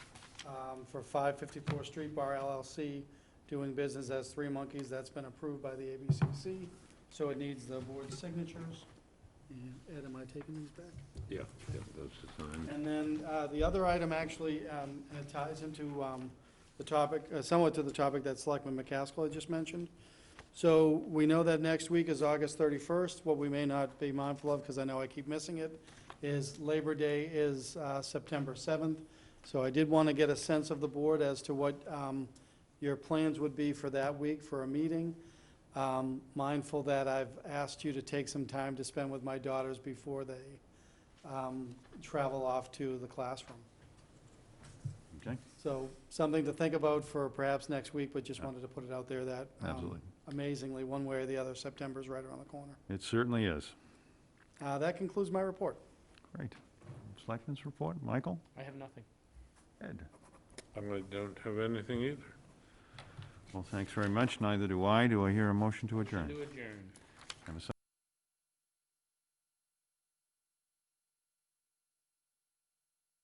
um, for 554 Street Bar LLC, doing business as Three Monkeys. That's been approved by the ABCC, so it needs the board's signatures. And Ed, am I taking these back? Yeah, yeah, those are signed. And then uh, the other item actually um, it ties into um, the topic, uh, somewhat to the topic that Selectman McCaskill had just mentioned. So we know that next week is August 31st. What we may not be mindful of, because I know I keep missing it, is Labor Day is uh, September 7th. So I did want to get a sense of the board as to what um, your plans would be for that week for a meeting. Um, Mindful that I've asked you to take some time to spend with my daughters before they um, travel off to the classroom. Okay, So something to think about for perhaps next week, but just Yeah. wanted to put it out there that um, absolutely. amazingly, one way or the other, September's right around the corner. It certainly is. Uh, That concludes my report. Great. Selectmen's report, Michael? I have nothing. Ed? Um, I don't have anything either. Well, thanks very much. Neither do I. Do I hear a motion to adjourn? To adjourn.